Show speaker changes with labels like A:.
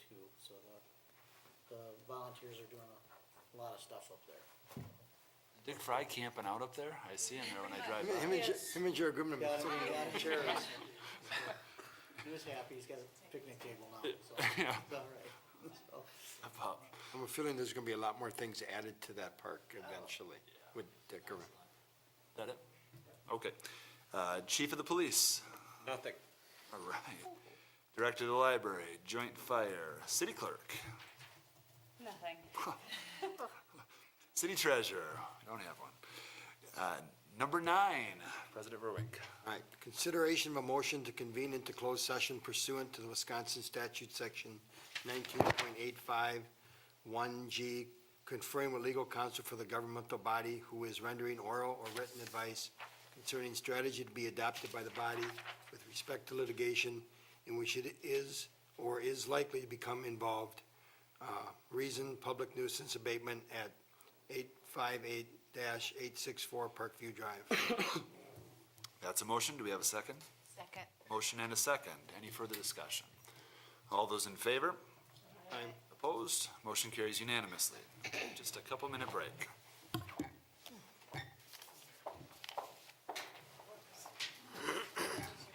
A: the volunteers are doing a lot of stuff up there.
B: Dick Fry camping out up there? I see him there when I drive by.
C: Him and Jer- him and Jared Goodman.
A: Got him, got him chairs. He was happy, he's got a picnic table now, so
B: Yeah.
A: it's all right. So,
B: About-
C: I'm feeling there's gonna be a lot more things added to that park eventually with Dick around.
B: That it? Okay. Uh, Chief of the Police.
C: Nothing.
B: All right. Director of the Library, Joint Fire, City Clerk,
D: Nothing.
B: City Treasurer. I don't have one. Uh, Number nine, President Verwink.
C: All right, consideration of a motion to convene into closed session pursuant to the Wisconsin statute section nineteen point eight five one G, conferring with legal counsel for the governmental body who is rendering oral or written advice concerning strategy to be adopted by the body with respect to litigation in which it is or is likely to become involved. Uh, Reason, public nuisance abatement at eight five eight eight six four Parkview Drive.
B: That's a motion. Do we have a second?
D: Second.
B: Motion and a second. Any further discussion? All those in favor?
C: Aye.
B: Opposed? Motion carries unanimously. Just a couple-minute break.